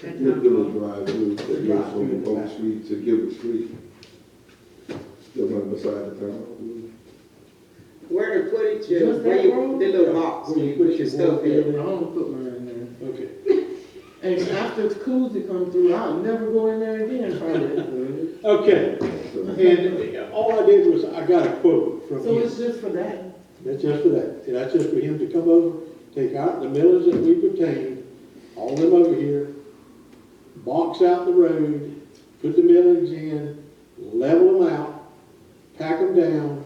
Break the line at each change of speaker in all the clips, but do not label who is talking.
They're gonna drive through, they go from Oak Street to Gilbert Street. Still on the side of town.
Where to put it, you,
Just
where
that
you,
road?
the little box, where you put your stuff in.
I don't put mine in
Okay.
there. And after the koozie come through, I'll never go in there again, probably.
Okay,
So,
and all I did was, I got a quote from
So
him.
it's just for that?
That's just for that. And that's just for him to come over, take out the millers that we've obtained, all them over here, box out the road, put the millings in, level them out, pack them down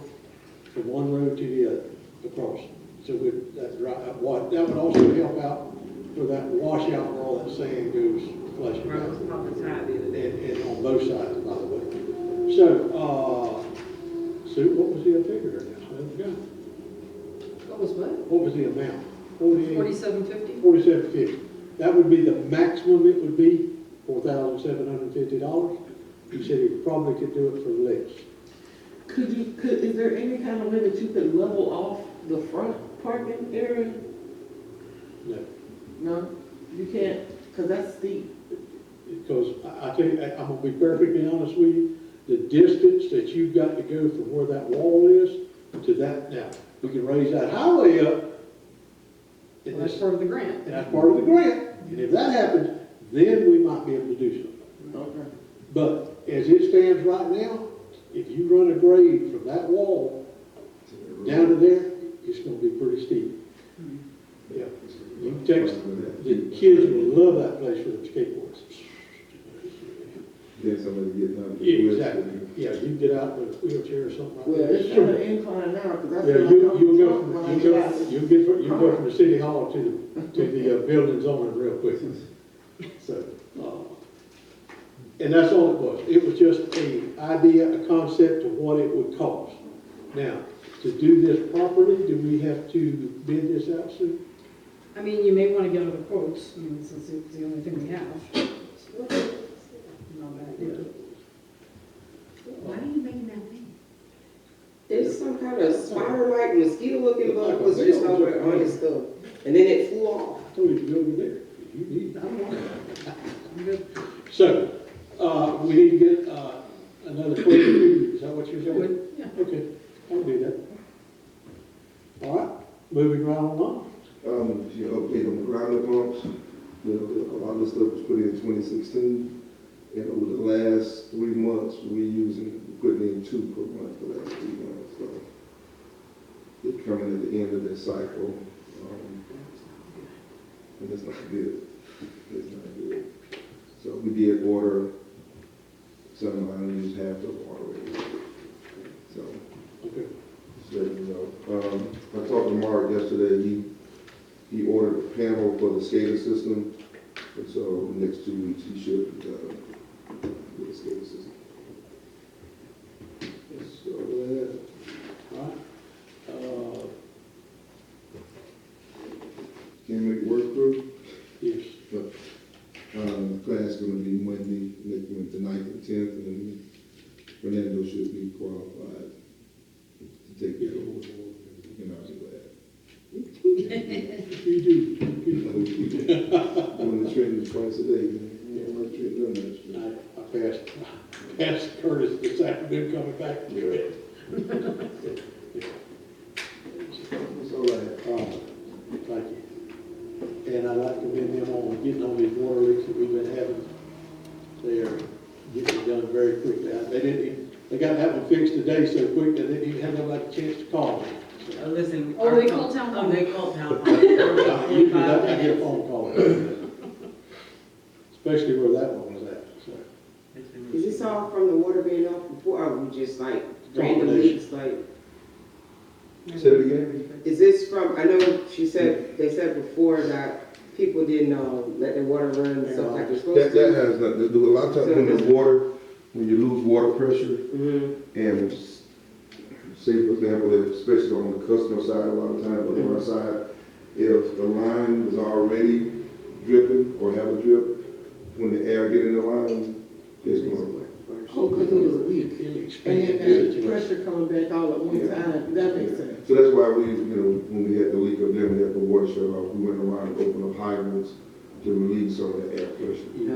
from one road to the other, across. So we, that, right, what, that would also help out for that washout where all that sand goes flushing
Where I
out.
was talking to Ty the other
And,
day.
and on both sides, by the way. So, uh, Sue, what was the other figure there now? I forgot.
What was what?
What was the amount? Forty,
Forty-seven fifty?
forty-seven fifty. That would be the maximum it would be, four thousand seven hundred and fifty dollars. He said he probably could do it for less.
Could you, could, is there any kind of way that you could level off the front parking area?
No,
No, you can't, because that's steep.
because I, I tell you, I- I'm gonna be perfectly honest with you, the distance that you've got to go from where that wall is to that, now, we can raise that highway up.
That's
and that's-
part of the grant.
And that's part of the grant. And if that happens, then we might be able to do something.
Okay.
But as it stands right now, if you run a grade from that wall down to there, it's gonna be pretty steep. Yeah, you text, the kids will love that place for their skateboards.
Then somebody get down. to the west
Exactly,
end.
yeah, you get out in a wheelchair or something like
Well,
that.
it's still an incline now, because that's.
Yeah,
where I
you,
come
you'll go
from when
from,
I
you'll
got-
go, you'll get, from- you'll go from the city hall to, the- to the uh, buildings on it real quick. So, uh, and that's all it was. It was just a idea, a concept of what it would cost. Now, to do this properly, do we have to bid this out soon?
I mean, you may want to get other quotes, I mean, since it's the only thing we have. And all that, yeah.
Why are you making that thing? There's some kind of spiral-like mosquito-looking bug was just over on his stuff, and then it flew off.
I told you to go over there. You need, I don't want it.
I'm good.
So, uh, we need to get, uh, another quote, is that what you're
Sure
saying?
would, yeah.
Okay, I'll do that. All right, moving right along.
Um, you update on the ground pumps, you know, a lot of the stuff was put in twenty sixteen. And over the last three months, we using, putting in two per month for the last three months, so. It's coming at the end of this cycle, um, and it's not good, it's not good. So we did order some, I don't use half of already, so.
Okay.
So, you know, um, I talked to Mark yesterday, he, he ordered a panel for the SCADA system, and so next two weeks, he should, uh, get a SCADA system. So, uh,
All right. Uh,
can we make it work through?
yes,
Um, class gonna be Monday, next Wednesday, ninth and tenth, and Fernando should be qualified to take
yeah.
that over, and I'll be glad.
You do, you do.
Doing the training twice a day, man. Yeah, my training done that.
I, I passed, passed Curtis this afternoon coming back to it.
It's all right.
Uh, Thank you. And I'd like to commend him on getting all these water leaks that we've been having. They are getting done very quickly. They didn't, even- they got that one fixed today so quick, they didn't even have nobody a chance to call me. So,
Uh, Listen.
Oh, they
our-
call town hall.
Oh, they call town hall.
Usually
In
that-
five
I get a
minutes.
phone call. Especially where that one was at, so.
Is this all from the water being off before, or we just like random leaks, like?
Say it again?
Is this from, I know she said, they said before that people didn't, um, let their water run, and stuff like they're
That,
supposed
that
to.
has nothing to do, a lot of times when there's water, when you lose water pressure,
Mhm.
and s- say, for example, if- especially on the customer side, a lot of times, but on our side, if the line is already dripping or have a drip, when the air get in the line, it's going.
Oh, because it was weak.
It
And
expanded the
then that
situation.
pressure coming back all at one
Yeah.
time, that makes sense.
So that's why we, you know, when we had the leak up there, we had the water shut off, we went around and opened up hydrants, to relieve some of the air pressure.